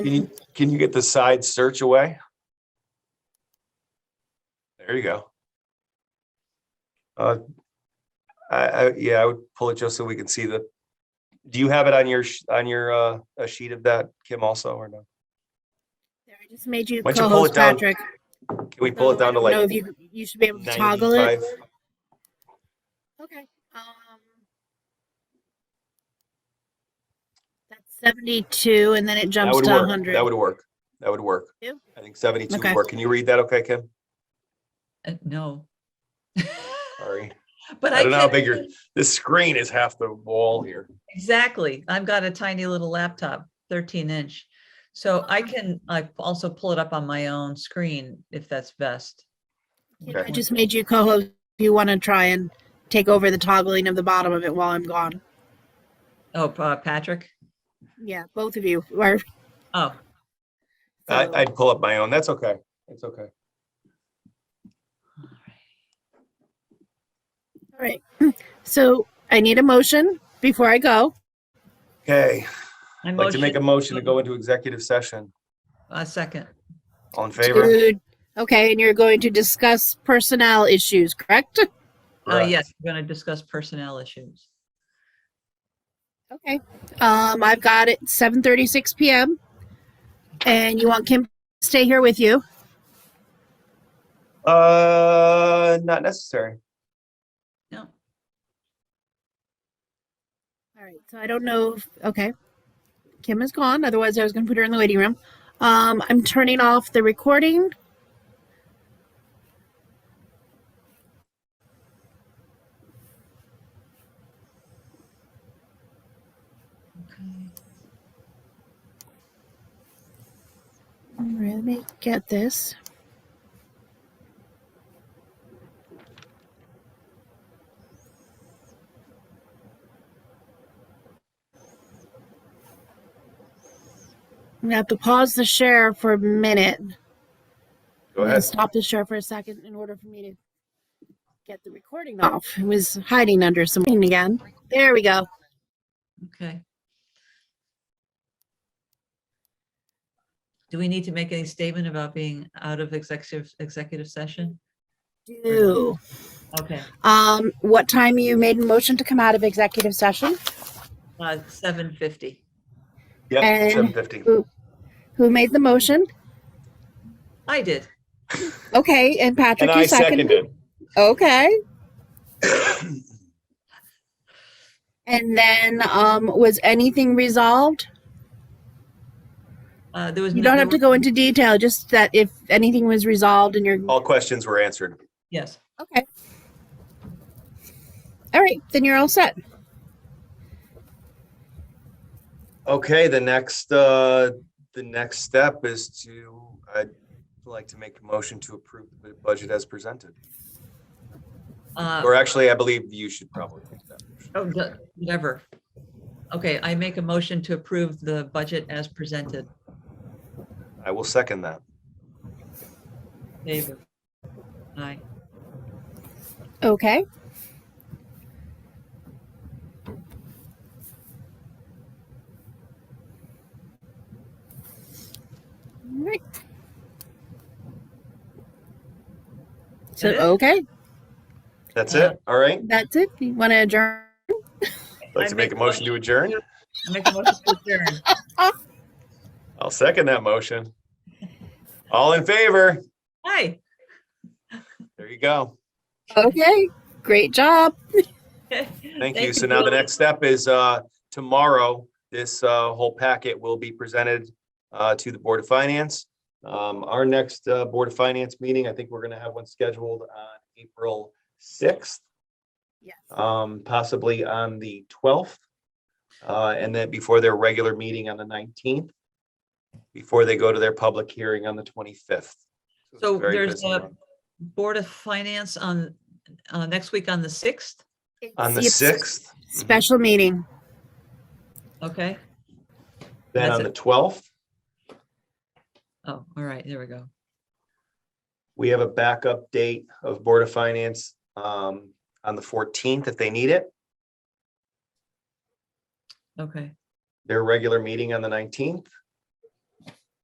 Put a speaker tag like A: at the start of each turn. A: Can you, can you get the side search away? There you go. Uh, I, I, yeah, I would pull it just so we can see the, do you have it on your, sh- on your, uh, a sheet of that, Kim, also, or no?
B: There, I just made you
A: Why don't you pull
B: co-host,
A: it down?
B: Patrick.
A: Can we pull it down to
B: No,
A: like
B: if you, you should be able to toggle it.
A: ninety-five?
B: Okay. Um, that's 72 and then it
A: That
B: jumps
A: would
B: to
A: work.
B: 100.
A: That would work. That would work.
B: Yeah.
A: I think seventy-two would
B: Okay.
A: work. Can you read that? Okay, Kim?
C: Uh, No.
A: Sorry.
C: But
A: I
C: I
A: don't know how
C: can-
A: big your- This screen is half the wall here.
C: Exactly. I've got a tiny little laptop, thirteen inch. So I can, I also pull it up on my own screen if that's best.
B: Kid,
A: Okay.
B: I just made you co-host. If you want to try and take over the toggling of the bottom of it while I'm gone.
C: Oh, uh, Patrick?
B: Yeah, both of you are.
C: Oh,
A: I,
B: so-
A: I'd pull up my own. That's okay. It's okay.
B: All right. So I need a motion before I go.
A: Okay,
C: I
A: I'd like to make a motion
C: motion-
A: to go into executive session.
C: a second.
A: All in favor?
B: to- okay, and you're going to discuss personnel issues, correct?
C: Uh,
A: Correct.
C: yes, we're gonna discuss personnel issues.
B: Okay. Um, I've got it 7:36 p.m. And you want Kim to stay here with you?
A: Uh, not necessary.
C: No,
B: All right. So I don't know. If, okay. Kim is gone. Otherwise, I was going to put her in the waiting room. Um, I'm turning off the recording.
C: okay.
B: All right, Let me get this. I'm gonna have to pause the share for a minute.
A: Go
B: I'm gonna
A: ahead.
B: Stop the share for a second in order for me to get the recording off. It was hiding under something again. There we go.
C: Okay. Do we need to make any statement about being out of executive, executive session?
B: Do.
C: Okay,
B: Um, what time you made a motion to come out of executive session?
C: uh, seven fifty.
A: Yep,
B: and-
A: seven fifty.
B: Who made the motion?
C: I did.
B: Okay, and Patrick,
A: And
B: you
A: I seconded.
B: Okay. and then, um, was anything resolved?
C: Uh, there was.
B: You
C: no-
B: don't
C: there
B: have to
C: were-
B: go into detail, just that if anything was resolved and you're
A: All questions were answered.
C: Yes.
B: okay. All right, then you're all set.
A: Okay, the next, uh, the next step is to, I'd like to make a motion to approve the budget as presented.
C: Uh,
A: Or actually, I believe you should probably make that. motion.
C: Oh, the- whatever. Okay, I make a motion to approve the budget as presented.
A: I will second that.
C: Favor. Aye.
B: Okay. All right. So,
C: it?
B: okay,
A: That's it? All right?
B: that's it. You want to adjourn?
A: I'd Like to make a motion to adjourn?
C: I make a motion to adjourn.
A: I'll second that motion. All in favor?
C: Aye.
A: There you go.
B: Okay, great job.
A: Thank you. So now the next step is uh, tomorrow, this uh, whole packet will be presented uh, to the Board of Finance. Um, Our next uh, Board of Finance meeting, I think we're going to have one scheduled on April 6th,
B: Yes.
A: um, possibly on the 12th. uh, And then before their regular meeting on the 19th, before they go to their public hearing on the 25th. it's
C: So
A: very
C: there's
A: busy
C: a-
A: month.
C: Board of Finance on, uh, next week on the sixth,
A: On the
B: It's
A: 6th,
B: Special meeting.
C: okay?
A: then
C: That's
A: on
C: it.
A: the 12th,
C: Oh, all right, there we go.
A: We have a backup date of Board of Finance um, on the fourteenth if they need it.
C: Okay,
A: Their regular meeting on the nineteenth,